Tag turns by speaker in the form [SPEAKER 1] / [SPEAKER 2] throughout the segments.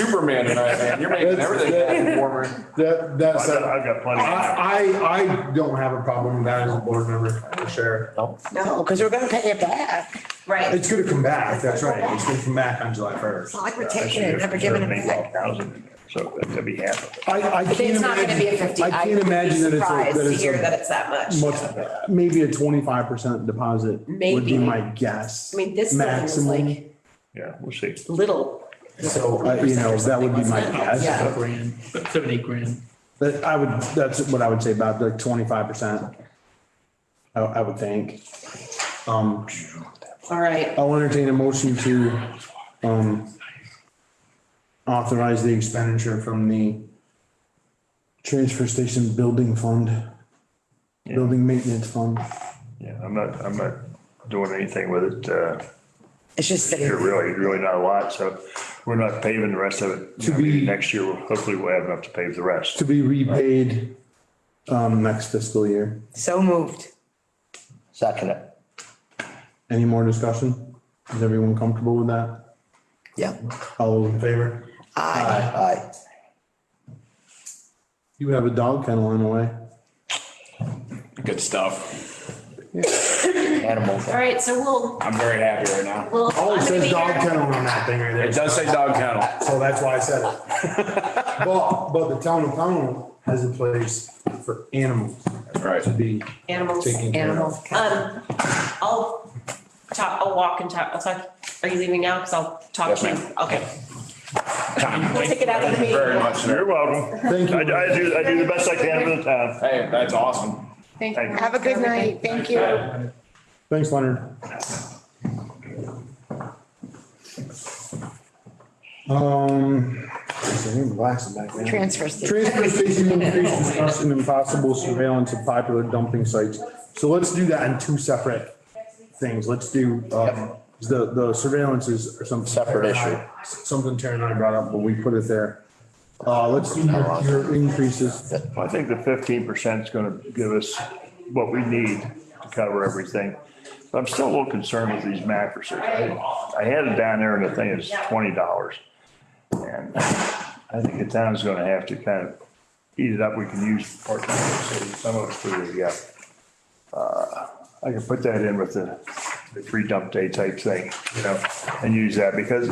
[SPEAKER 1] Superman tonight, man. You're making
[SPEAKER 2] That's-
[SPEAKER 1] everything happen for me.
[SPEAKER 2] That, that's,
[SPEAKER 3] I've got, I've got plenty.
[SPEAKER 2] I, I, I don't have a problem with that as a board member, for sure.
[SPEAKER 4] No, because we're gonna pay it back.
[SPEAKER 5] Right.
[SPEAKER 2] It's gonna come back, that's right, it's gonna come back on July first.
[SPEAKER 4] It's not like we're taking it, and never giving it back.
[SPEAKER 3] So that'd be half of it.
[SPEAKER 2] I, I
[SPEAKER 5] But
[SPEAKER 2] can't
[SPEAKER 5] it's not gonna be a
[SPEAKER 2] imagine,
[SPEAKER 5] fifty.
[SPEAKER 2] I can't
[SPEAKER 5] would be
[SPEAKER 2] imagine that it's
[SPEAKER 5] surprised to
[SPEAKER 2] a,
[SPEAKER 5] hear
[SPEAKER 2] that
[SPEAKER 5] that it's that much.
[SPEAKER 2] it's a much, maybe a twenty-five percent deposit would be
[SPEAKER 5] Maybe.
[SPEAKER 2] my guess.
[SPEAKER 5] I mean, this building was
[SPEAKER 2] maximum.
[SPEAKER 5] like
[SPEAKER 3] Yeah, we'll see.
[SPEAKER 5] little.
[SPEAKER 2] So, uh, you know, that would be my
[SPEAKER 5] Yeah.
[SPEAKER 2] guess.
[SPEAKER 6] grand, seven, eight grand.
[SPEAKER 2] But I would, that's what I would say about like twenty-five percent. I, I would think. Um,
[SPEAKER 5] All right.
[SPEAKER 2] I'll entertain a motion to, um, authorize the expenditure from the transfer station building fund,
[SPEAKER 3] Yeah,
[SPEAKER 2] building maintenance fund.
[SPEAKER 3] yeah, I'm not, I'm not doing anything with it. Uh,
[SPEAKER 4] It's just sitting.
[SPEAKER 3] here really, really not a lot. So we're not paving the rest of it.
[SPEAKER 2] To
[SPEAKER 3] I mean,
[SPEAKER 2] be-
[SPEAKER 3] Next year, we'll- hopefully we'll have enough to pave the rest.
[SPEAKER 2] to be repaid um next fiscal year.
[SPEAKER 4] So moved.
[SPEAKER 7] Second it.
[SPEAKER 2] Any more discussion? Is everyone comfortable with that?
[SPEAKER 4] Yeah.
[SPEAKER 2] All those in favor?
[SPEAKER 4] Aye.
[SPEAKER 7] Aye.
[SPEAKER 2] You have a dog kennel in a way.
[SPEAKER 1] Good stuff.
[SPEAKER 7] Animals.
[SPEAKER 5] All right, so we'll,
[SPEAKER 1] I'm very happy right now.
[SPEAKER 5] we'll.
[SPEAKER 2] Oh, it
[SPEAKER 5] I'm gonna
[SPEAKER 2] says
[SPEAKER 5] be
[SPEAKER 2] dog
[SPEAKER 5] here-
[SPEAKER 2] kennel on that thing right there.
[SPEAKER 1] It does say dog kennel.
[SPEAKER 2] So that's why I said it. But, but the town of Pownell has a place for animals
[SPEAKER 1] Right.
[SPEAKER 2] to be
[SPEAKER 5] Animals.
[SPEAKER 2] taken care of.
[SPEAKER 4] Animals.
[SPEAKER 5] Um, I'll talk, I'll walk and talk, I'll talk, are you leaving now? Cause I'll talk
[SPEAKER 1] Yes,
[SPEAKER 5] to you.
[SPEAKER 1] ma'am.
[SPEAKER 5] Okay. We'll take it out of the
[SPEAKER 1] Thank you Very
[SPEAKER 5] meeting.
[SPEAKER 1] much, sir.
[SPEAKER 3] You're welcome.
[SPEAKER 2] Thank you.
[SPEAKER 3] I, I do, I do the best I can for the town.
[SPEAKER 1] Hey, that's awesome.
[SPEAKER 5] Thank
[SPEAKER 3] Thank you.
[SPEAKER 4] Have a good night. Thank you.
[SPEAKER 2] Thanks, Leonard. Um.
[SPEAKER 4] Transfer station.
[SPEAKER 2] Transfer station increase discussion and possible surveillance of popular dumping sites. So let's do that in two separate things. Let's do, um, the, the surveillance is or something.
[SPEAKER 7] Separate issue.
[SPEAKER 2] Something Terry and I brought up, but we put it there. Uh, let's do your- your increases.
[SPEAKER 3] I think the fifteen percent is gonna give us what we need to cover everything. But I'm still a little concerned with these mattresses. I I had it down there and the thing is twenty dollars. And I think the town's gonna have to kind of eat it up. We can use part of it, so some of it for the, uh, I can put that in with the, the free dump day type thing, you know, and use that because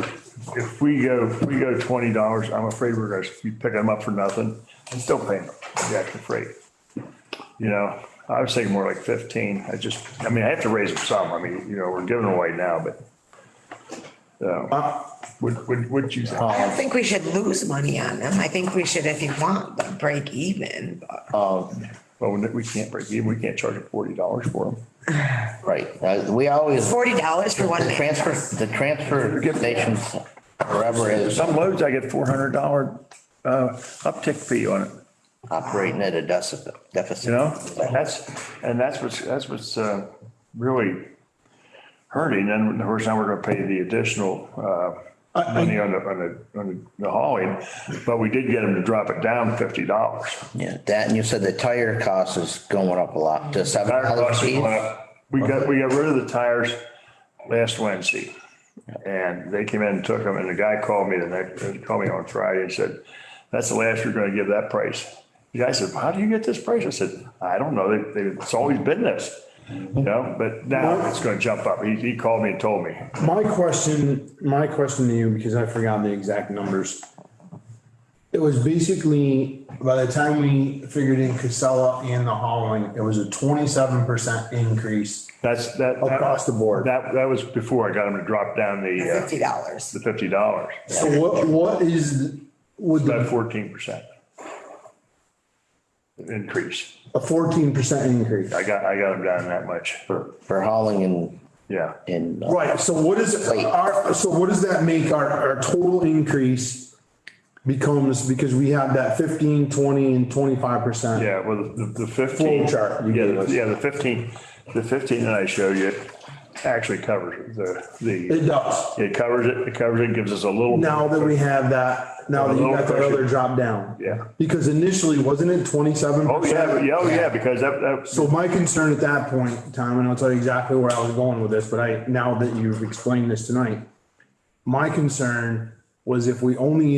[SPEAKER 3] if we go, if we go twenty dollars, I'm afraid we're gonna be picking them up for nothing and still paying them the extra freight. You know, I was thinking more like fifteen. I just, I mean, I have to raise them some. I mean, you know, we're giving away now, but. Uh, would, would, would you?
[SPEAKER 4] I don't think we should lose money on them. I think we should, if you want, like, break even. but-
[SPEAKER 3] Well, we can't break even. We can't charge forty dollars for them.
[SPEAKER 7] Right. Uh, We always,
[SPEAKER 4] Forty dollars for one
[SPEAKER 7] the
[SPEAKER 4] man.
[SPEAKER 7] transfer, the transfer stations forever is
[SPEAKER 3] Some loads I get four hundred dollar, uh, uptick fee on it.
[SPEAKER 7] operating at a deficit.
[SPEAKER 3] You know, that's, and that's what's, that's what's uh, really hurting. And of course, now we're gonna pay the additional uh, money on the, on the, on the hauling. But we did get them to drop it down fifty dollars.
[SPEAKER 7] Yeah, that, and you said the tire cost is going up a lot to seven
[SPEAKER 3] Tire
[SPEAKER 7] dollars
[SPEAKER 3] costs
[SPEAKER 7] a
[SPEAKER 3] are
[SPEAKER 7] piece.
[SPEAKER 3] going up. We got, we got rid of the tires last Wednesday. And they came in and took them and the guy called me the next, he called me on Friday and said, that's the last you're gonna give that price. The guy said, how do you get this price? I said, I don't know. They, they, it's always been this. You know, but now it's gonna jump up. He, he called me and told me.
[SPEAKER 2] My question, my question to you, because I forgot the exact numbers. It was basically, by the time we figured in Casella and the hauling, it was a twenty-seven percent increase
[SPEAKER 3] That's, that.
[SPEAKER 2] across the board.
[SPEAKER 3] That, that was before I got him to drop down the, uh,
[SPEAKER 4] Fifty dollars.
[SPEAKER 3] the fifty dollars,
[SPEAKER 2] So what, what is, would
[SPEAKER 3] about
[SPEAKER 2] the-
[SPEAKER 3] fourteen percent. Increase.
[SPEAKER 2] a fourteen percent increase?
[SPEAKER 3] I got, I got them down that much.
[SPEAKER 7] For hauling and,
[SPEAKER 3] Yeah.
[SPEAKER 7] and. uh,
[SPEAKER 2] Right, so what is, our, so what does that make our, our total increase becomes, because we have that fifteen, twenty, and twenty-five percent?
[SPEAKER 3] Yeah, well, the, the fifteen.
[SPEAKER 2] Flow chart you
[SPEAKER 3] Yeah,
[SPEAKER 2] gave us.
[SPEAKER 3] the- yeah, the fifteen, the fifteen that I showed you actually covers the,
[SPEAKER 2] It
[SPEAKER 3] the,
[SPEAKER 2] does,
[SPEAKER 3] it covers it, it covers it, gives us a little.
[SPEAKER 2] now that we have that, now that you got that other drop down.
[SPEAKER 3] Yeah.
[SPEAKER 2] Because initially, wasn't it twenty-seven
[SPEAKER 3] Oh, yeah, but-
[SPEAKER 2] percent?
[SPEAKER 3] yeah, oh, yeah, because that, that,
[SPEAKER 2] So my concern at that point, Tom, and I'll tell you exactly where I was going with this, but I, now that you've explained this tonight, my concern was if we only